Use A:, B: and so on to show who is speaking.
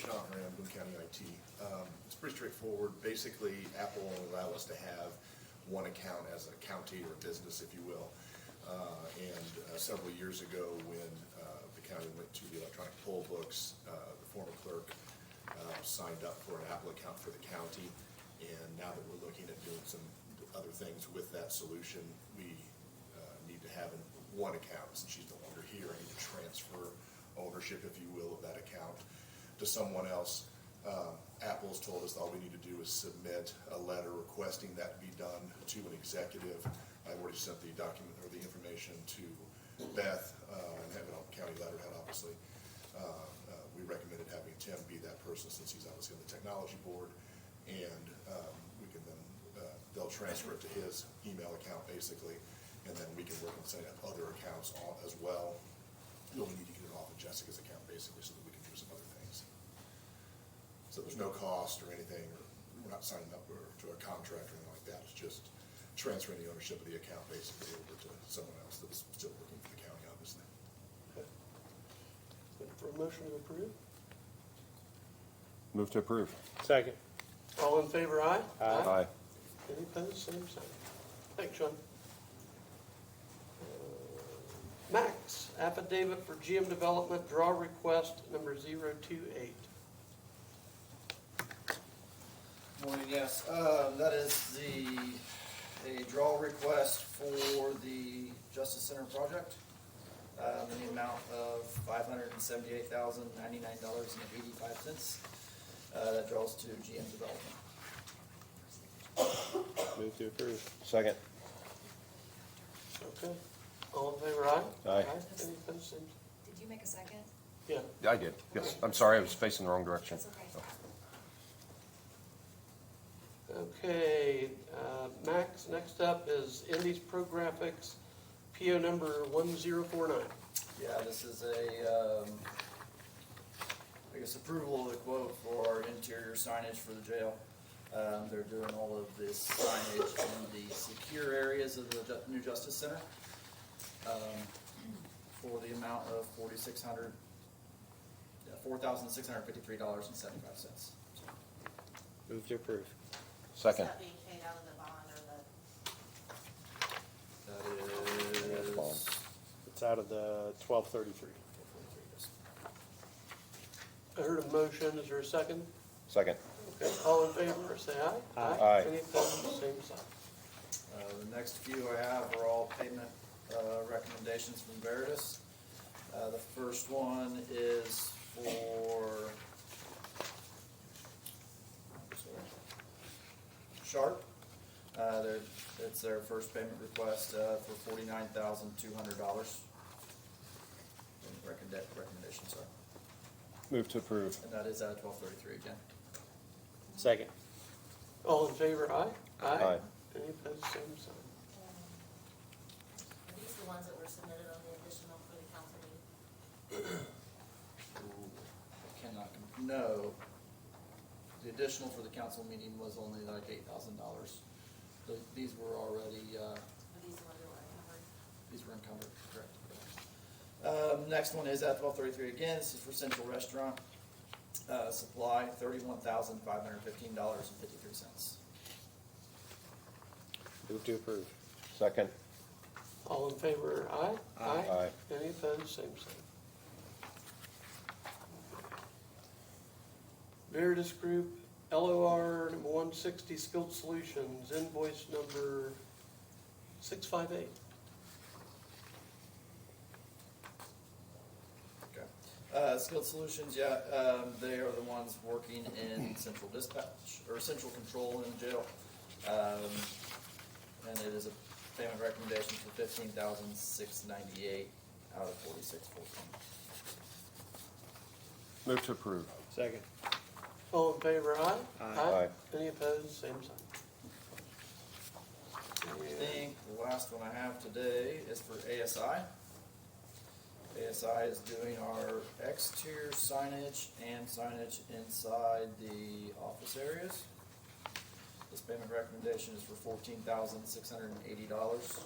A: Oakland County IT. Um, It's pretty straightforward. Basically, Apple will allow us to have one account as a county or business, if you will. Uh, And uh, several years ago, when uh, the county went to the electronic poll books, uh, the former clerk uh, signed up for an Apple account for the county. And now that we're looking at doing some other things with that solution, we uh, need to have in one account, since she's no longer here, I need to transfer ownership, if you will, of that account to someone else. Um, Apple's told us all we need to do is submit a letter requesting that be done to an executive. I've already sent the document or the information to Beth, uh, and have it on county letterhead, obviously. Uh, uh, We recommended having Tim be that person, since he's obviously on the technology board, and um, we can then uh, they'll transfer it to his email account basically, and then we can work on setting up other accounts all- as well. You'll need to get it off of Jessica's account basically, so that we can do some other things. So there's no cost or anything, or we're not signing up or to a contract or anything like that, it's just transferring the ownership of the account basically over to someone else that's still working for the county, obviously.
B: Looking For a motion to approve?
C: Move to approve.
D: Second.
B: All in favor, aye?
C: Aye.
B: Any opposed, same sign. Thanks, Sean. Max, affidavit for GM Development, draw request number 028.
E: Morning, yes. Um, That is the, a draw request for the Justice Center project um, in the amount of five hundred and seventy-eight thousand, ninety-nine dollars and eighty-five cents. Uh, That draws to GM Development.
D: Move to approve.
C: Second.
B: Okay. All in favor, aye? Any
C: Aye.
B: opposed, same sign.
F: Did you make a second?
B: Yeah.
C: I did, yes. I'm sorry, I was facing the wrong direction.
F: That's okay.
B: Okay, uh, Max, next up is Indies Pro Graphics, PO number 1049.
E: Yeah, this is a, um, I guess approval of the quote for our interior signage for the jail. Um, they're doing all of this signage in the secure areas of the ju- new Justice Center, um, for the amount of forty-six hundred, four thousand six hundred fifty-three dollars and seventy-five cents.
D: Move to approve.
C: Second.
G: Is that being paid out of the bond or the,
E: That
C: That's
E: is.
C: fine.
D: It's out of the twelve thirty-three.
B: I heard a motion, is there a second?
C: Second.
B: Okay, all in favor, say aye.
D: Aye.
C: Aye.
B: Any opposed, same sign.
E: Uh, The next few I have are all payment uh, recommendations from Veritas. Uh, The first one is for Sharp. Uh, their- It's their first payment request uh, for forty-nine thousand two hundred dollars. Recommendation, sorry.
C: Move to approve.
E: And that is at twelve thirty-three again.
D: Second.
B: All in favor, aye?
C: Aye.
B: Any opposed, same sign.
G: um, are these the ones that were submitted on the additional for the council meeting?
E: Ooh, I Cannot, com- no. The additional for the council meeting was only like eight thousand dollars. These were already, uh,
G: Are these the ones that were uncovered?
E: these were encumbered, correct? Um, next one is at twelve thirty-three again, this is for Central Restaurant, uh, supply, thirty-one thousand five hundred fifteen dollars and fifty-three cents.
D: Move to approve.
C: Second.
B: All in favor, aye?
C: Aye.
B: Any opposed, same sign. Veritas Group, LOR number one sixty, Skilled Solutions, invoice number six five eight.
E: Okay. Uh, Skilled Solutions, yeah, um, they are the ones working in central dispatch, or central control in the jail. Um, and it is a payment recommendation for fifteen thousand six ninety-eight out of forty-six fourteen.
C: Move to approve.
D: Second.
B: All in favor, aye?
C: Aye.
B: Any opposed, same sign.
E: I think the last one I have today is for ASI. ASI is doing our exterior signage and signage inside the office areas. This payment recommendation is for fourteen thousand six hundred and eighty dollars.